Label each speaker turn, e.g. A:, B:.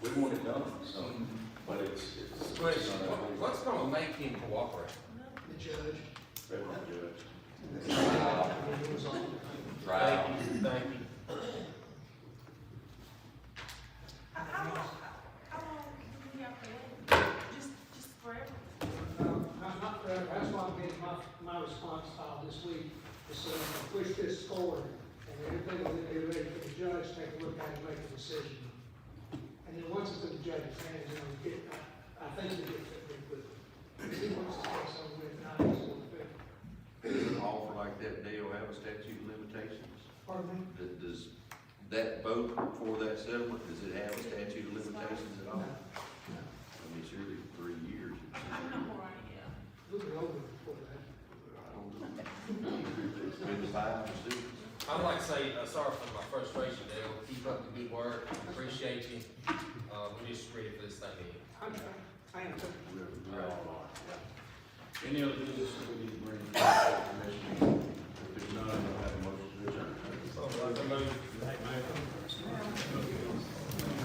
A: we want it done, so, but it's, it's. it's
B: Question,
A: not our
B: what-
A: whole-
B: what's gonna make him cooperate?
C: the judge,
A: Better not do it.
C: and it was on.
B: Thank you, thank you.
D: How, how long, how long can we have to wait? Just, just forever?
E: Um, I'm not, uh, that's why I'm getting my, my response file this week, is so I push this forward, and everything will be ready for the judge, to take a look at it, make a decision. And then once it's in the judge's hands, then we get, I, I think we get that pretty quickly. If he wants to take some with, not just one thing.
F: Does an offer like that deal have a statute of limitations?
E: Pardon me?
F: Does- Does that vote for that settlement, does it have a statute of limitations at all? I mean, surely three years.
D: I'm not worried, yeah.
E: We'll be over before that.
F: I don't know. It's been five or six.
B: I'd like to say, uh, sorry for my frustration, Dale, keep up the good work, appreciate you, uh, we just ready for this thing to end.
E: I'm, trying- I am, trying.
F: We're- we're all
A: Any other business that we need to bring to the commission? If there's none, I'll have a motion to adjourn.
B: So, uh, so move.